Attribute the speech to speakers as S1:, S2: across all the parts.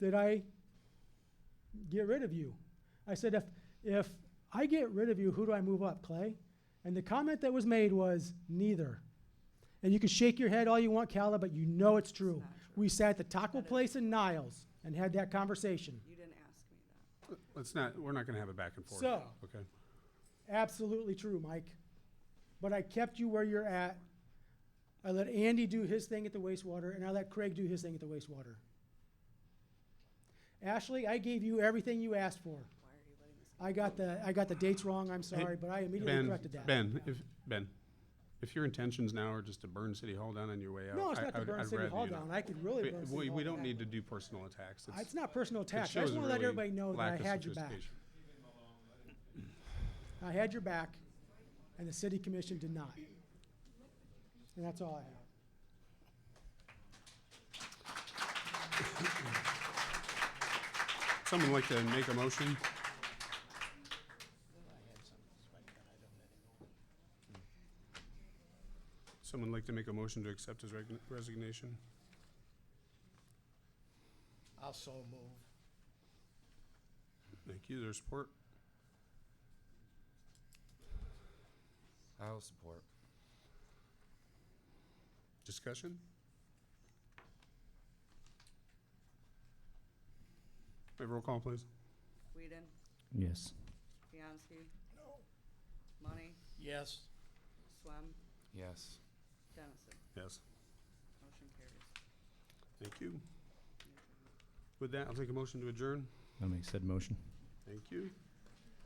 S1: did I get rid of you? I said, if, if I get rid of you, who do I move up, Clay? And the comment that was made was, neither. And you can shake your head all you want, Calla, but you know it's true.
S2: not true.
S1: We sat at the taco
S2: That is-
S1: place in Niles and had that conversation.
S2: You didn't ask me that.
S3: Let's not, we're not gonna have a back and forth.
S1: So-
S3: Okay.
S1: Absolutely true, Mike. But I kept you where you're at. I let Andy do his thing at the wastewater, and I let Craig do his thing at the wastewater. Ashley, I gave you everything you asked for.
S2: Why are you letting this?
S1: I got the, I got the dates wrong, I'm sorry, but I immediately
S3: Ben,
S1: corrected that.
S3: Ben, if, Ben, if your intentions now are just to burn City Hall down on your way out.
S1: No, it's
S3: I-
S1: not
S3: I
S1: to
S3: would-
S1: burn
S3: I'd
S1: City
S3: rather
S1: Hall
S3: you not.
S1: down, I could really
S3: We-
S1: burn City
S3: We,
S1: Hall
S3: we don't
S1: down.
S3: need to do personal attacks. It's-
S1: It's not personal
S3: it
S1: attack, I
S3: shows
S1: just wanna let
S3: really
S1: everybody know that
S3: lack
S1: I
S3: of
S1: had your back.
S3: sophistication.
S1: I had your back, and the city commission did not. And that's all I have.
S3: Someone like to make a motion? Someone like to make a motion to accept his regna- resignation?
S4: I'll so move.
S3: Thank you. There's support?
S5: I'll support.
S3: Discussion? May I have roll call, please?
S2: Whedon,
S6: Yes.
S2: Bianski. No. Money,
S4: Yes.
S2: Swam,
S5: Yes.
S2: Dennison.
S3: Yes.
S2: Motion carries.
S3: Thank you. With that, I'll take a motion to adjourn.
S6: I'll make said motion.
S3: Thank you.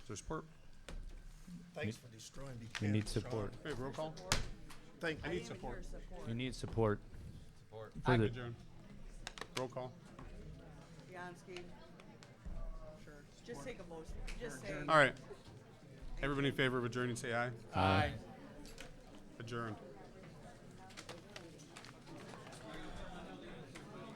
S3: Is there support?
S4: Thanks for destroying Buchanan.
S6: We need
S4: Sean.
S6: support.
S3: May I have roll call?
S4: Thank you.
S3: I need support.
S6: We need support.
S5: Support.
S6: for the-
S3: Adjourn. Roll call.
S2: Bianski. Sure. Just take a vote, just say.
S3: All right. Everybody in favor of adjourning, say aye.
S6: Aye.
S3: Adjourned.